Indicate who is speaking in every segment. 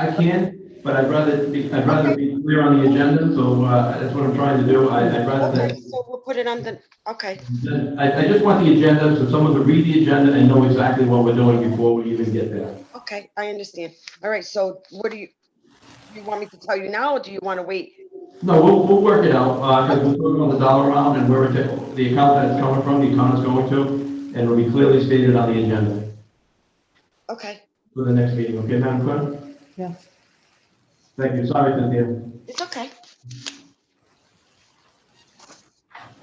Speaker 1: I can, but I'd rather, be- I'd rather be clear on the agenda, so uh, that's what I'm trying to do. I- I'd rather
Speaker 2: Okay,
Speaker 1: that
Speaker 2: so we'll put it on the, okay,
Speaker 1: I, I just want the agenda, so someone could read the agenda and know exactly what we're doing before we even get there.
Speaker 2: okay, I understand. All right, so what do you, you want me to tell you now, or do you want to wait?
Speaker 1: No, we'll, we'll work it out, uh, because we're talking on the dollar amount and where it, the account that it's coming from, the account it's going to, and it'll be clearly stated on the agenda
Speaker 2: Okay,
Speaker 1: for the next meeting, okay, Madam Clerk?
Speaker 3: Yeah.
Speaker 1: Thank you, sorry, Cynthia.
Speaker 2: it's okay.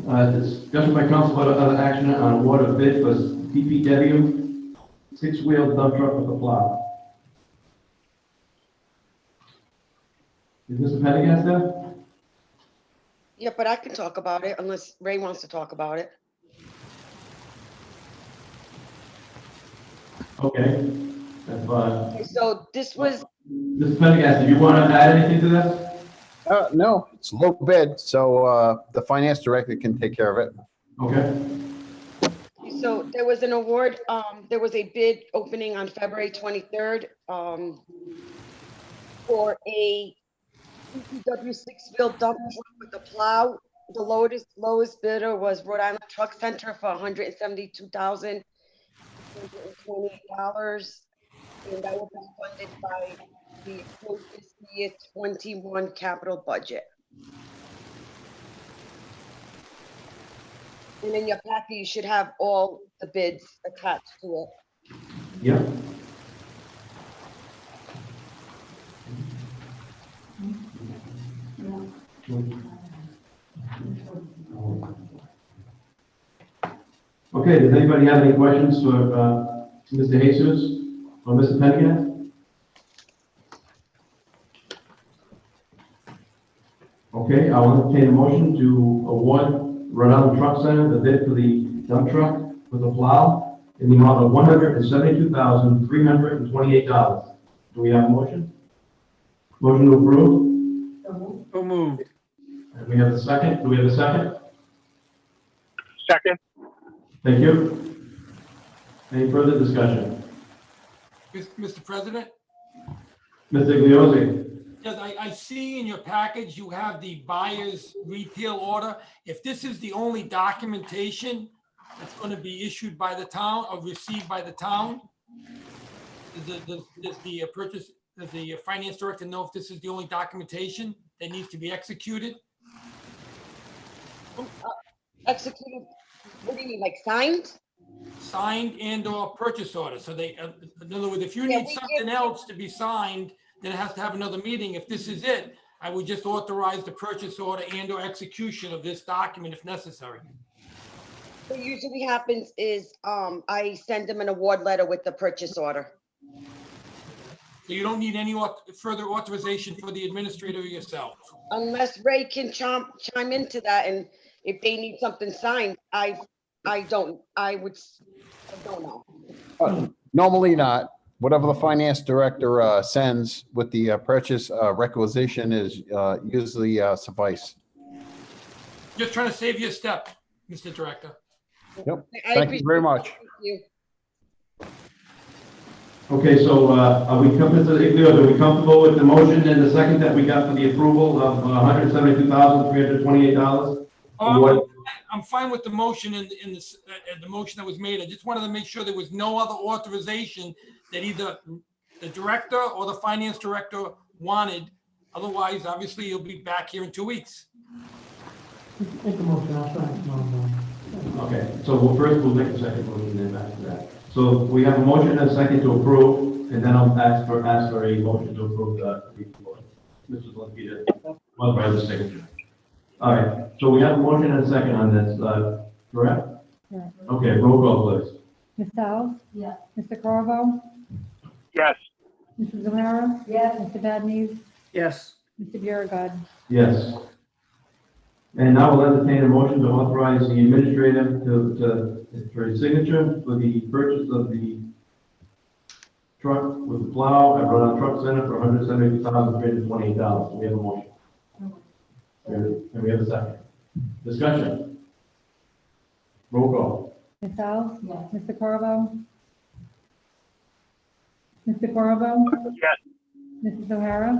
Speaker 1: Uh, discussion by council about other action on award of bid for DPW six-wheel dump truck with a plow. Is Mr. Pendergast there?
Speaker 2: Yeah, but I can talk about it unless Ray wants to talk about it.
Speaker 1: Okay, that's fine.
Speaker 2: Okay, So this was,
Speaker 1: Mr. Pendergast, do you want to add anything to this?
Speaker 4: Uh, no, it's low bid, so, uh, the finance director can take care of it.
Speaker 1: Okay,
Speaker 2: so there was an award, um, there was a bid opening on February twenty-third, um, for a DPW six-wheel dump truck with a plow. The lowest, lowest bidder was Rhode Island Truck Center for hundred and seventy-two thousand, two hundred and twenty dollars. And that will be funded by the full fiscal year twenty-one capital budget. And in your packet, you should have all the bids attached to it.
Speaker 1: yeah. Okay, does anybody have any questions for, uh, Mr. Jesus or Mr. Pendergast? Okay, I will entertain a motion to award Rhode Island Truck Center the bid for the dump truck with a plow in the amount of one hundred and seventy-two thousand, three hundred and twenty-eight dollars. Do we have a motion? Motion to approve,
Speaker 5: So moved.
Speaker 1: and we have a second, do we have a second?
Speaker 6: Second,
Speaker 1: Thank you. Any further discussion?
Speaker 5: Mis- Mr. President,
Speaker 1: Mr. Igliozzi?
Speaker 5: yes, I, I see in your package you have the buyer's retail order. If this is the only documentation that's going to be issued by the town or received by the town, does the- does, does the purchase, does the finance director know if this is the only documentation that needs to be executed?
Speaker 2: Executed, what do you mean, like signed?
Speaker 5: Signed and or purchase order. So they, uh, in other words, if you
Speaker 2: Yeah,
Speaker 5: need
Speaker 2: we give-
Speaker 5: something else to be signed, then it has to have another meeting. If this is it, I would just authorize the purchase order and or execution of this document if necessary.
Speaker 2: What usually happens is, um, I send them an award letter with the purchase order.
Speaker 5: So you don't need any au- further authorization for the administrator or yourself.
Speaker 2: Unless Ray can chime, chime into that and if they need something signed, I, I don't, I would, s- I don't know.
Speaker 4: Uh, Normally not. Whatever the finance director, uh, sends with the uh, purchase, uh, requisition is, uh, usually, uh, suffice.
Speaker 5: Just trying to save you a step, Mr. Director.
Speaker 2: I- I
Speaker 4: Thank you very
Speaker 2: appreciate it.
Speaker 4: much.
Speaker 2: Thank you.
Speaker 1: Okay, so, uh, are we comfortable, Igliozzi, are we comfortable with the motion and the second that we got for the approval of uh, one hundred seventy-two thousand, three hundred twenty-eight dollars?
Speaker 5: Um,
Speaker 1: What-
Speaker 5: I'm fine with the motion and, and this, uh, uh, the motion that was made. I just wanted to make sure there was no other authorization that either the director or the finance director wanted. Otherwise, obviously, you'll be back here in two weeks.
Speaker 7: Make a motion, I'll sign it tomorrow morning.
Speaker 1: Okay, so we'll first, we'll make a second motion and then back to that. So we have a motion and a second to approve, and then I'll ask for, ask for a motion to approve the report. Mrs. Lepita, one by the signature. All right, so we have a motion and a second on this, uh, correct?
Speaker 3: Correct.
Speaker 1: Okay, roll call, please.
Speaker 3: Ms. Howe? Yes. Mr. Carvo?
Speaker 6: yes,
Speaker 3: Mrs. O'Hara? Yes. Mr. Badnees?
Speaker 7: Yes,
Speaker 3: Mr. Biragad.
Speaker 1: Yes. And now we'll entertain a motion to authorize the administrator to, to, for his signature for the purchase of the truck with the plow at Rhode Island Truck Center for hundred seventy-two thousand three hundred twenty-eight dollars. Do we have a motion? And we have a second. Discussion. Roll call.
Speaker 3: Ms. Howe? Yes. Mr. Carvo? Mr. Carvo?
Speaker 6: yes,
Speaker 3: Mrs. O'Hara?